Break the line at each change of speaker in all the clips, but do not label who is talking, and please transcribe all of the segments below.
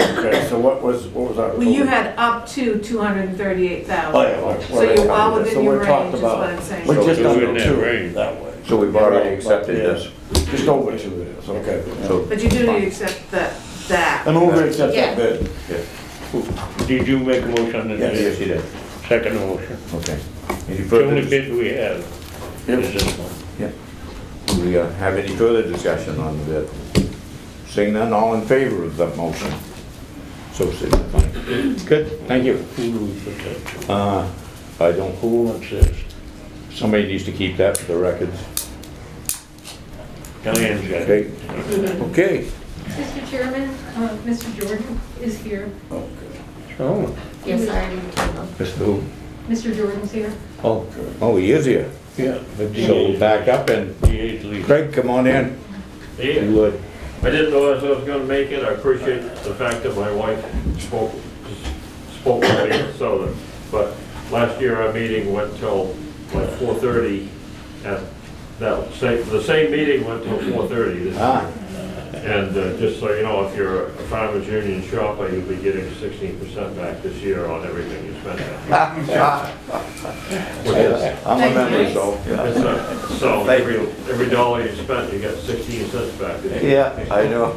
Okay, so what was, what was our?
Well, you had up to two hundred and thirty-eight
Oh,
thousand.
yeah. we're-
So
we're-
you're well within
so
your
we're talked
range, is
about-
what I'm saying.
We're
So
just
it was
under
in that
two
range.
that way.
So we've already
Yeah,
accepted
yeah.
this.
Just over two it is, okay.
So-
But you do need to accept that, that.
I'm over accept that bid.
Did you make a motion? and
Yes.
Yes, you did.
Second motion.
Okay. Any
The
further,
only
dis-
bid we have is
Yep.
this one.
do we uh, have any further discussion on the bid? Seeing none, all in favor of the motion? So signify. Good, thank you.
Who do we put that to?
Uh, I don't,
Who wants this?
somebody needs to keep that for the records.
Diane's got it.
Okay, okay.
Mr. Chairman, uh, Mr. Jordan is here.
So,
Yes, I
Mr. Who?
Mr. Jordan's here.
Oh, oh, he is here.
yeah, but
So
DA's,
back up and
DA's leaving.
Craig, come on in.
Yeah,
would.
I didn't know if I was gonna make it, I appreciate the fact that my wife spoke, spoke with me at Southern, but last year our meeting went till like four thirty, and that, same, the same meeting went till four thirty.
Ah,
And uh, just so you know, if you're a farmer's union shopper, you'll be getting sixteen percent back this year on everything you spend. out. Which is-
I'm a member, so.
it's a- So,
Thank
every,
you.
every dollar you spent, you get sixteen cents back this year.
Yeah, I know.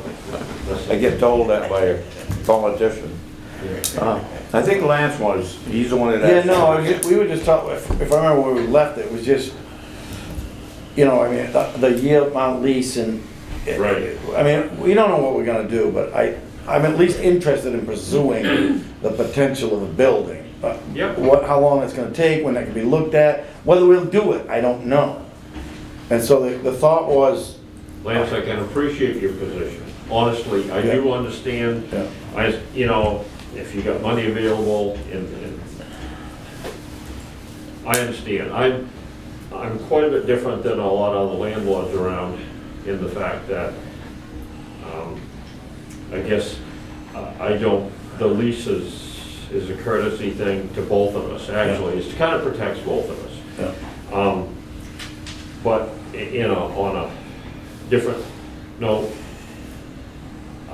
I get told that by a politician. Uh, I think Lance was, he's the one that
Yeah,
asked.
no, I was just- we were just talking, if if I remember where we left, it was just, you know, I mean, the- the year amount lease and.
Right.
I mean, we don't know what we're gonna do, but I, I'm at least interested in pursuing the potential of the building. But
Yep.
What, how long it's gonna take, when that can be looked at, whether we'll do it, I don't know. And so the, the thought was,
Lance, I can appreciate your position. Honestly, I do understand,
Yeah.
I, you know, if you got money available and, and I understand. I'm, I'm quite a bit different than a lot of the landlords around in the fact that, um, I guess, uh, I don't, the lease is, is a courtesy thing to both of us, actually. It kind of protects both of us.
yeah,
Um, But, y- you know, on a different note,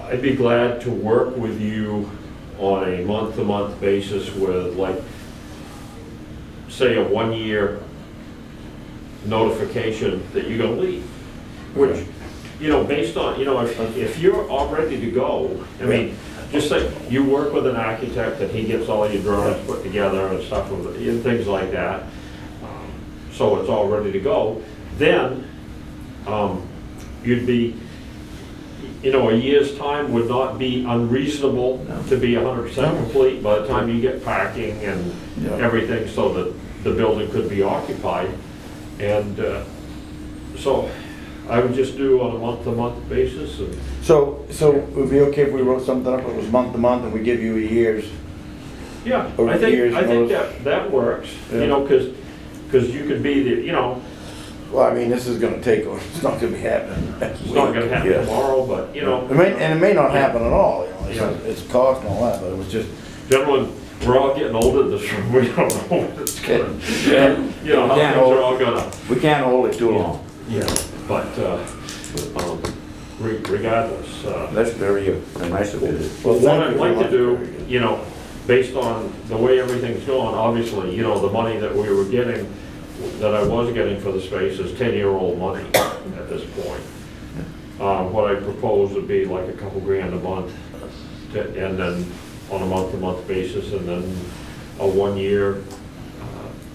I'd be glad to work with you on a month-to-month basis with like, say, a one-year notification that you're gonna leave. Which, you know, based on, you know, if, if you're all ready to go, I mean, just like, you work with an architect and he gets all your drawings put together and stuff, with- and things like that um, so it's all ready to go, then um, you'd be, you know, a year's time would not be unreasonable to be 100% complete by the time you get parking and
Yeah.
everything so that the building could be occupied. And uh, so I would just do on a month-to-month basis and
so, so it would be okay if we wrote something up, it was month to month, and we give you a year's
Yeah,
Over
I
the years,
think, I
most-
think that, that works,
Yeah.
you know, because, because you could be the, you know,
Well, I mean, this is gonna take, it's not gonna be happening next
it's
week.
not gonna happen
Yeah.
tomorrow, but, you know.
It may, and it may not happen at all, you know, it's,
Yeah.
it's cost and all that, but it was just,
Gentlemen, we're all getting older this room, we don't know when it's gonna, you know, how
Yeah.
things are all gonna,
We can't hold it too long.
yeah, but, uh, um, re- regardless, uh,
That's very uh, nice of you.
well,
what
thank
I'd
you very
like to
much.
do, you know, based on the way everything's going, obviously, you know, the money that we were getting, that I was getting for the space is ten-year-old money at this point. Uh, what I propose would be like a couple grand a month, to- and then on a month-to-month basis, and then a one-year uh,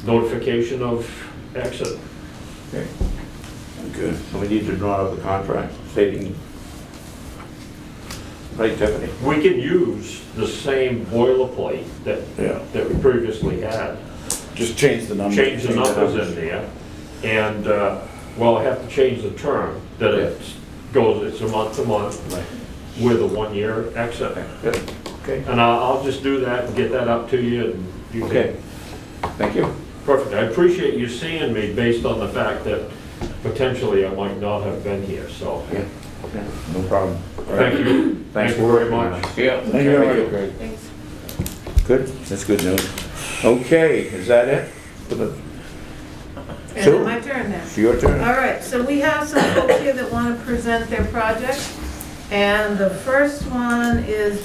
notification of exit.
Okay. Good. So we need to draw up the contract stating. Right, Tiffany?
We can use the same boilerplate that,
Yeah,
that we previously had.
just change the numbers.
change the numbers in there, and, uh, well, I have to change the term, that it goes, it's a month to month with a one-year exit.
Good. Okay.
And I'll, I'll just do that and get that up to you, and you
Okay.
can,
Thank you.
perfect. I appreciate you seeing me based on the fact that potentially I might not have been here, so,
Yeah. No problem.
thank you.
Thanks
Thank you
for
very
working on
much.
it. Yeah.
Thank you very much.
Thanks.
Good, that's good news. Okay, is that it? For the-
And
Sure.
then my turn then.
It's your turn.
All right, so we have some folks here that want to present their project. And the first one is